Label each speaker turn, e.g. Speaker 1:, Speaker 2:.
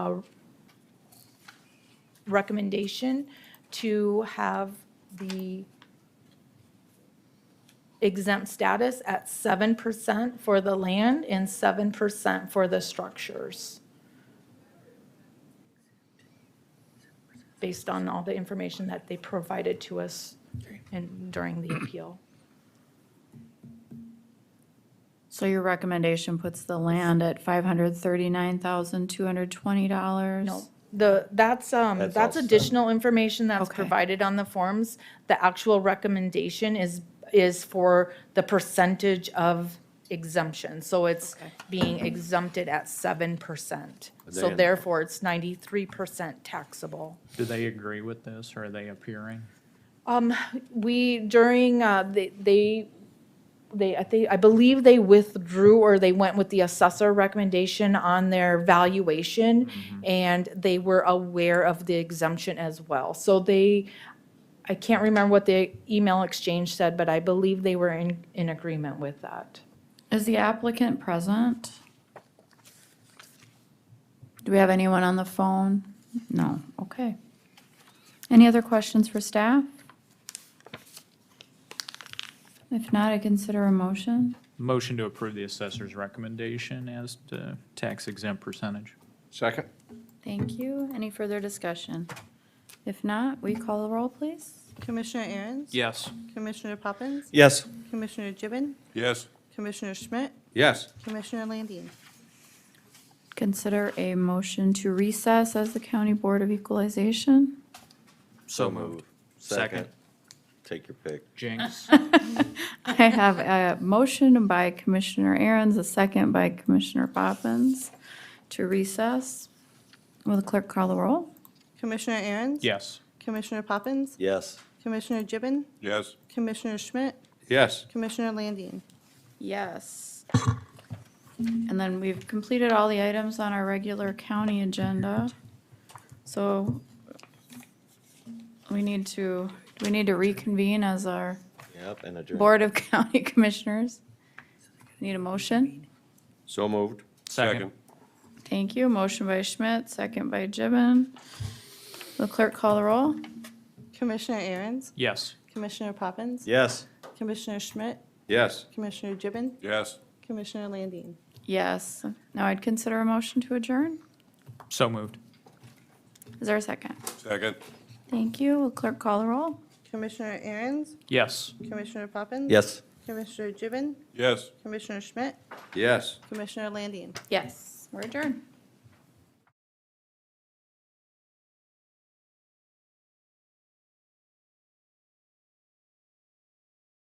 Speaker 1: recommendation to have the exempt status at seven percent for the land and seven percent for the structures. Based on all the information that they provided to us and during the appeal.
Speaker 2: So your recommendation puts the land at five hundred thirty-nine thousand, two hundred twenty dollars?
Speaker 1: No, the, that's, um,
Speaker 3: That's
Speaker 1: that's
Speaker 3: all set.
Speaker 1: additional information that's
Speaker 2: Okay.
Speaker 1: provided on the forms. The actual recommendation is, is for the percentage of exemption. So it's
Speaker 2: Okay.
Speaker 1: being exempted at seven percent. So
Speaker 3: Then-
Speaker 1: therefore, it's ninety-three percent taxable.
Speaker 4: Do they agree with this, or are they appearing?
Speaker 1: Um, we, during, uh, they- they, they, I think, I believe they withdrew or they went with the assessor recommendation on their valuation. And they were aware of the exemption as well. So they, I can't remember what the email exchange said, but I believe they were in, in agreement with that.
Speaker 2: Is the applicant present? Do we have anyone on the phone? No, okay. Any other questions for staff? If not, I consider a motion.
Speaker 4: Motion to approve the assessor's recommendation as to tax exempt percentage.
Speaker 3: Second?
Speaker 2: Thank you. Any further discussion? If not, we call the roll, please?
Speaker 5: Commissioner Aaron's?
Speaker 4: Yes.
Speaker 5: Commissioner Poppins?
Speaker 3: Yes.
Speaker 5: Commissioner Gibbon?
Speaker 3: Yes.
Speaker 5: Commissioner Schmidt?
Speaker 3: Yes.
Speaker 5: Commissioner Landine?
Speaker 2: Consider a motion to recess as the County Board of Equalization.
Speaker 3: So moved.
Speaker 4: Second.
Speaker 3: Take your pick.
Speaker 4: Jinx.
Speaker 2: I have a motion by Commissioner Aaron's, a second by Commissioner Poppins to recess. Will the clerk call the roll?
Speaker 5: Commissioner Aaron's?
Speaker 4: Yes.
Speaker 5: Commissioner Poppins?
Speaker 3: Yes.
Speaker 5: Commissioner Gibbon?
Speaker 3: Yes.
Speaker 5: Commissioner Schmidt?
Speaker 3: Yes.
Speaker 5: Commissioner Landine?
Speaker 2: Yes. And then we've completed all the items on our regular county agenda. So we need to, we need to reconvene as our
Speaker 3: Yep, and adjourned.
Speaker 2: Board of County Commissioners. Need a motion?
Speaker 3: So moved.
Speaker 4: Second.
Speaker 2: Thank you. Motion by Schmidt, second by Gibbon. Will clerk call the roll?
Speaker 5: Commissioner Aaron's?
Speaker 4: Yes.
Speaker 5: Commissioner Poppins?
Speaker 3: Yes.
Speaker 5: Commissioner Schmidt?
Speaker 3: Yes.
Speaker 5: Commissioner Gibbon?
Speaker 3: Yes.
Speaker 5: Commissioner Landine?
Speaker 2: Yes. Now I'd consider a motion to adjourn.
Speaker 4: So moved.
Speaker 2: Is there a second?
Speaker 3: Second.
Speaker 2: Thank you. Will clerk call the roll?
Speaker 5: Commissioner Aaron's?
Speaker 4: Yes.
Speaker 5: Commissioner Poppins?
Speaker 3: Yes.
Speaker 5: Commissioner Gibbon?
Speaker 3: Yes.
Speaker 5: Commissioner Schmidt?
Speaker 3: Yes.
Speaker 5: Commissioner Landine?
Speaker 2: Yes. We're adjourned.